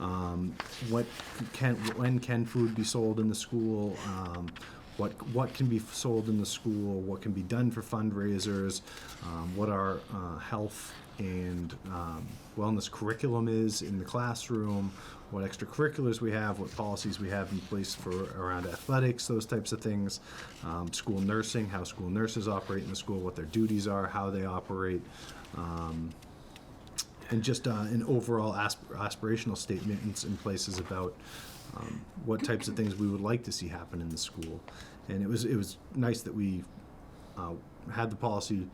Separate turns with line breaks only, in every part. um, what can, when can food be sold in the school, um, what, what can be sold in the school, what can be done for fundraisers, um, what our uh, health and um, wellness curriculum is in the classroom, what extracurriculars we have, what policies we have in place for around athletics, those types of things, um, school nursing, how school nurses operate in the school, what their duties are, how they operate, um, and just uh, an overall asp- aspirational statements in places about um, what types of things we would like to see happen in the school. And it was it was nice that we uh, had the policy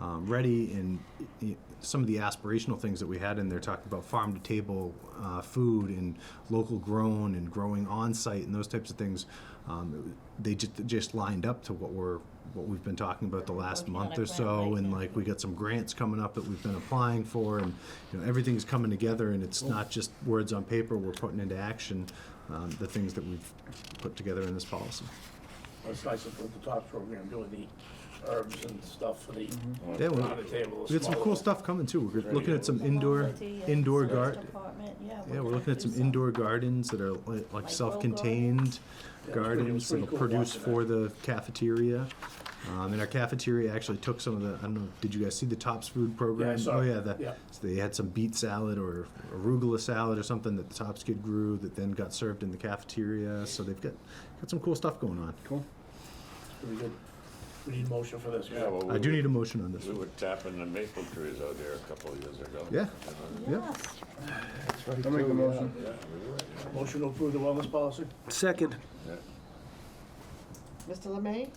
um, ready, and i- i- some of the aspirational things that we had in there talked about farm to table uh, food and local grown and growing on site and those types of things. Um, it w- they just just lined up to what we're what we've been talking about the last
Working on
month
a
or
plan
so,
right
and
now.
like we got some grants coming up that we've been applying for, and you know everything's coming together, and it's not just words on paper. We're putting into action um, the things that we've put together in this policy.
Well, It's nice to put the top program, doing the herbs and stuff for the,
Yeah, we-
on the table.
We got some cool stuff coming too. We're looking at some
The
indoor,
novelty of
indoor
service
gar,
department, yeah.
yeah, we're
gonna
looking at
do
some indoor gardens that are li- like
Like
self-contained
pretty-
gardens
it's pretty
that'll
cool
produce
watching
for the cafeteria. Um, and our cafeteria actually took some of the, I don't know, did you guys see the Tops Food Program?
Yeah, I saw
Oh,
it.
yeah, the,
Yeah.
so they had some beet salad or arugula salad or something that the Tops kid grew that then got served in the cafeteria. So they've got, got some cool stuff going on.
Cool.
Pretty good. We need motion for this.
Yeah, well, we
I do
were-
need a motion on this
We
one.
were tapping the maple trees out there a couple of years ago.
Yeah.
And, uh,
Yeah.
Yes,
I'll make a motion.
Motion to approve the wellness policy?
Second.
Mr. Lemay,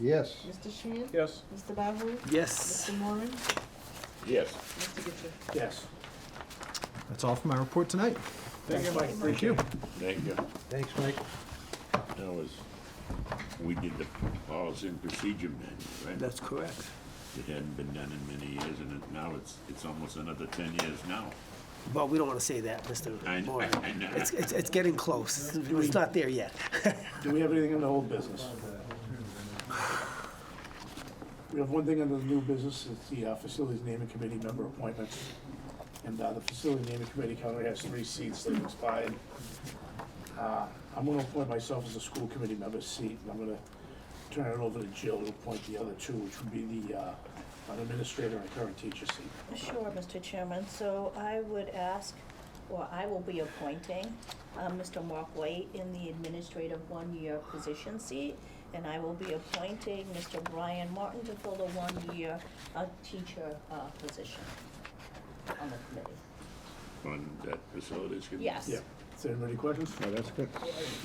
Yes.
Mr. Sheehan,
Yes.
Mr. Bahu,
Yes.
Mr. Moran,
Yes,
Mr. Getchell.
Yes.
That's all for my report tonight.
Thank you, Mike.
Thank you.
thank you.
Thanks, Mike.
That was, we did the policy and procedure manual, right?
That's correct.
It hadn't been done in many years, and it- now it's, it's almost another ten years now.
Well, we don't want to say that, Mr.
I-
Moran.
I know.
It's, it's, it's getting close. It's not there yet.
Do we have anything in the old business? We have one thing under the new business, it's the uh, facilities naming committee member appointments. And uh, the facility naming committee currently has three seats that expired. Uh, I'm gonna appoint myself as a school committee member seat, and I'm gonna turn it over to Jill to appoint the other two, which would be the, uh, an administrator and current teacher seat.
sure, Mr. Chairman. So I would ask, or I will be appointing, uh, Mr. Mark White in the administrative one-year position seat, and I will be appointing Mr. Brian Martin to fill the one-year, uh, teacher, uh, position on the committee.
On that facilities. committee.
Yes.
Yeah, is there any questions?
Oh, that's good.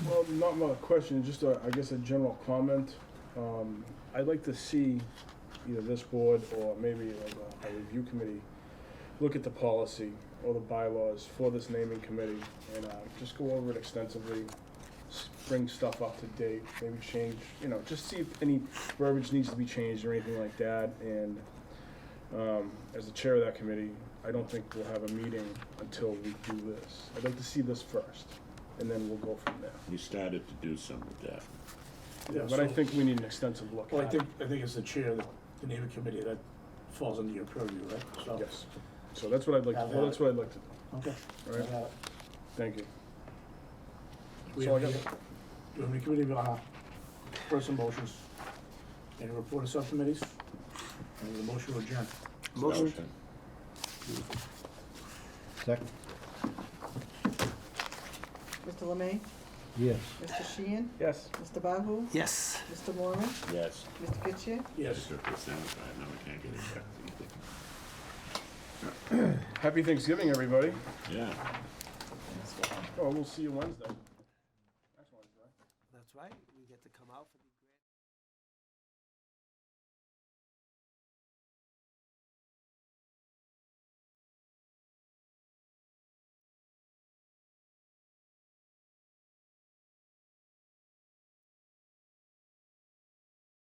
Well, not my question, just a, I guess a general comment. Um, I'd like to see either this board or maybe uh, like a, a review committee look at the policy or the bylaws for this naming committee and, uh, just go over it extensively, s- bring stuff up to date, maybe change, you know, just see if any verbiage needs to be changed or anything like that. And, um, as the chair of that committee, I don't think we'll have a meeting until we do this. I'd like to see this first, and then we'll go from there.
We started to do some of that.
Yeah,
But I
so-
think we need an extensive look
Well, I
at it.
think, I think it's the chair, of the- the naming committee, that falls under your purview, right? So-
Yes. So that's what I'd like, to- well, that's what I'd like to do,
Okay.
all right?
Uh,
Thank you.
We
So I
have, we have a committee, uh, person motions, any report of subcommittees, and the motion to adjourn.
Motion.
Second?
Mr. Lemay,
Yes.
Mr. Sheehan,
Yes.
Mr. Bahu,
Yes.
Mr. Moran,
Yes.
Mr. Getchell.
Yes.
Mr. Personified, now we can't get it back.
Happy Thanksgiving, everybody.
Yeah.
Well, we'll see you Wednesday.
That's right. We get to come out for the.